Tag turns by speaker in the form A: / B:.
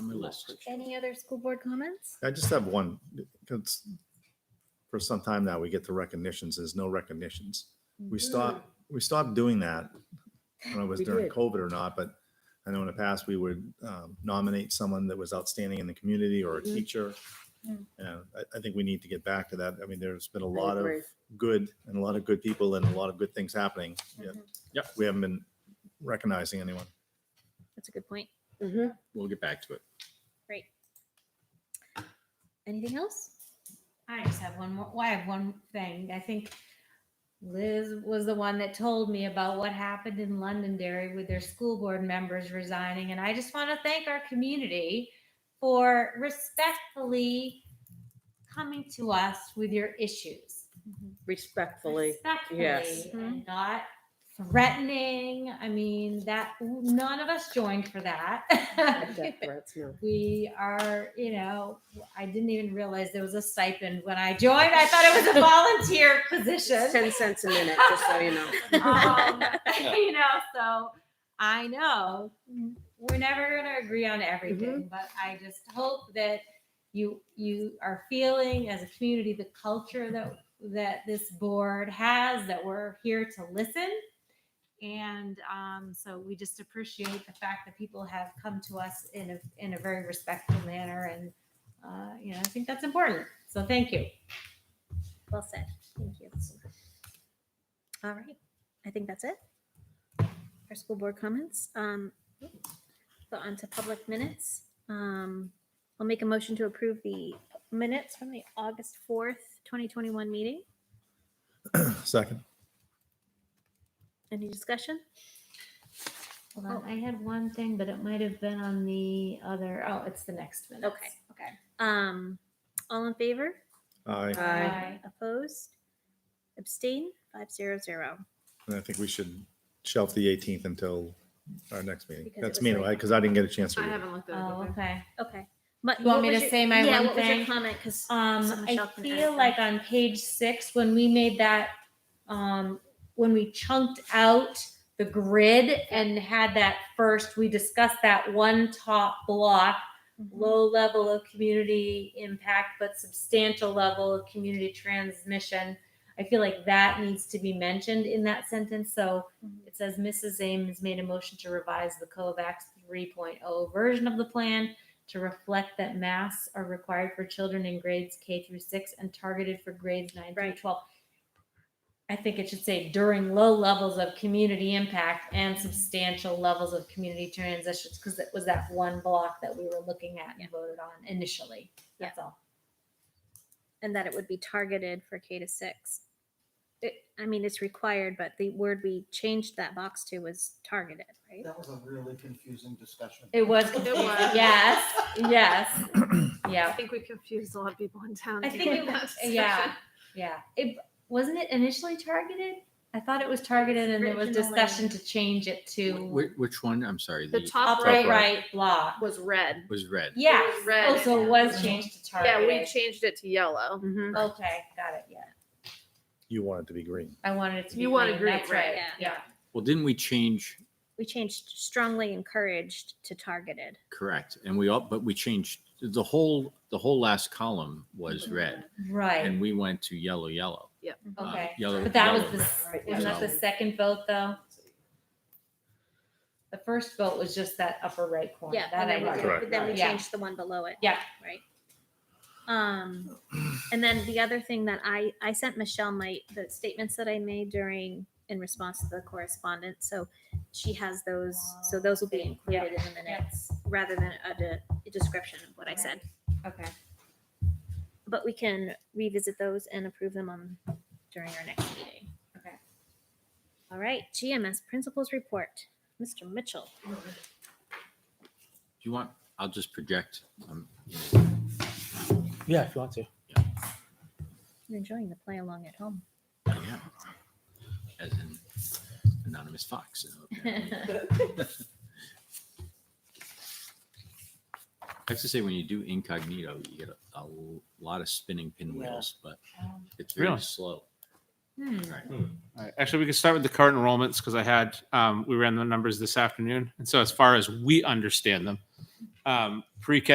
A: list.
B: Any other school board comments?
C: I just have one. It's- For some time now, we get the recognitions. There's no recognitions. We stopped, we stopped doing that. I don't know if
D: Mm-hmm.
C: it was
D: We
C: during
D: did.
C: COVID or not, but I know in the past, we would um, nominate someone that was outstanding in the community or a
D: Mhm.
C: teacher.
B: Yeah.
C: And I, I think we need to get back to that. I mean, there's been a
D: I
C: lot of
D: agree.
C: good and a lot of good people and a lot of good things happening.
D: Mm-hmm.
C: yet
B: Mhm.
A: Yep.
C: We haven't been recognizing anyone.
B: That's a good point.
D: Mhm.
A: We'll get back to it.
B: Great. Anything else?
E: I just have one more. Well, I have one thing. I think Liz was the one that told me about what happened in Londonderry with their school board members resigning. And I just want to thank our community for respectfully coming to us with your issues.
D: Respectfully.
E: Respectfully,
D: yes.
E: and not threatening. I mean, that none of us joined for that.
D: Not death threats, no.
E: we are, you know, I didn't even realize there was a stipend when I joined. I thought it was a volunteer
D: It's
E: position.
D: Ten cents a minute, just so you know.
E: Um, you know, so I know we're never going to agree on
B: Mm-hmm.
E: everything, but I just hope that you you are feeling as a community the culture that that this board has that we're here to listen and um, so we just appreciate the fact that people have come to us in a in a very respectful manner, and uh, you know I think that's important. So thank you.
B: Well said. Thank you. All right. I think that's it. For school board comments. Um, so on to public minutes. Um, I'll make a motion to approve the minutes from the August 4th, 2021 meeting.
C: Second,
B: Any discussion?
E: Hold on, Oh, I had one thing, but it might have been on the other. Oh, it's the next one.
B: Okay. Um, all in favor?
C: I,
D: Aye.
B: Opposed? Abstain? Five zero zero.
C: and I think we should shelf the 18th until our next meeting.
B: Because it
C: That's
B: was
C: me,
B: late.
C: because I didn't get a chance to
F: I
C: read it.
F: haven't looked at it.
E: Oh,
F: either.
E: okay.
B: Okay. But
E: You want
B: what
E: me to
B: was your-
E: say my
B: yeah,
E: one
B: what was your
E: thing?
B: comment? Because So
E: Um, I
B: Michelle can edit
E: feel
B: them.
E: like on page six, when we made that, um, when we chunked out the grid and had that first, we discussed that one top block,
B: Mm-hmm.
E: low level of community impact, but substantial level of community transmission. I feel like that needs to be mentioned in that sentence. So
B: Mhm.
E: it says Mrs. Ames made a motion to revise the COVAX 3.0 version of the plan to reflect that masks are required for children in grades K through six and targeted for grades nine
B: Right.
E: through twelve. I think it should say during low levels of community impact and substantial levels of community transitions, because it was that one block that we were looking at and voted on initially. That's all.
B: and that it would be targeted for K to six. It, I mean, it's required, but the word we changed that box to was targeted, right?
G: That was a really confusing discussion.
E: It was,
F: It was.
E: yes, yes,
F: I
E: yeah.
F: think we confused a lot of people in town.
E: I think it
F: during that
E: was, yeah,
F: discussion.
E: yeah. It wasn't it initially targeted? I thought it was targeted and there was
B: Originally.
E: discussion to change it to
A: Which, which one? I'm sorry.
F: The top
E: upright
F: oh, right,
E: right block.
F: was red.
A: Was red.
E: Yeah.
F: It was red.
E: Oh, so it was changed to
F: yeah,
E: targeted.
F: we changed it to yellow.
D: Mhm.
E: Okay, got it, yeah.
C: You want it to be green.
E: I wanted it to be.
F: You wanted
E: green,
F: green,
E: that's
F: right,
B: yeah.
E: Yeah.
A: Well, didn't we change?
B: We changed strongly encouraged to targeted.
A: Correct. And we all, but we changed the whole, the whole last column was red
E: Mm-hmm. Right,
A: and we went to yellow, yellow. uh,
E: okay.
A: Yellow.
E: But that was
A: yellow,
E: the,
A: red.
E: s- wasn't that the second vote though? The first vote was just that upper right corner.
B: Yeah,
E: That
B: and
E: I
B: then we
E: remember.
B: did,
C: Correct.
B: but then we
E: Yeah.
B: changed the one below it.
E: Yeah.
B: Right. Um, and then the other thing that I, I sent Michelle my, the statements that I made during, in response to the correspondence, so she has those, so those will be
E: Yeah.
B: included in the minutes, rather than a, de- a description of what I said.
E: Okay.
B: But we can revisit those and approve them on, during our next meeting.
E: Okay.
B: All right, GMS Principals Report, Mr. Mitchell.
A: Do you want, I'll just project. Um,
H: Yeah, if you want to.
B: You're enjoying the play along at home.
A: yeah. As in anonymous fox. you know, apparently. I have to say, when you do incognito, you get a, a lot of spinning pinwheels, but
E: Um,
A: it's very
I: Really?
A: slow.
E: Hmm.
A: Right.
I: All right. Actually, we could start with the current enrollments because I had, um, we ran the numbers this afternoon. And so as far as we understand them, um, pre-K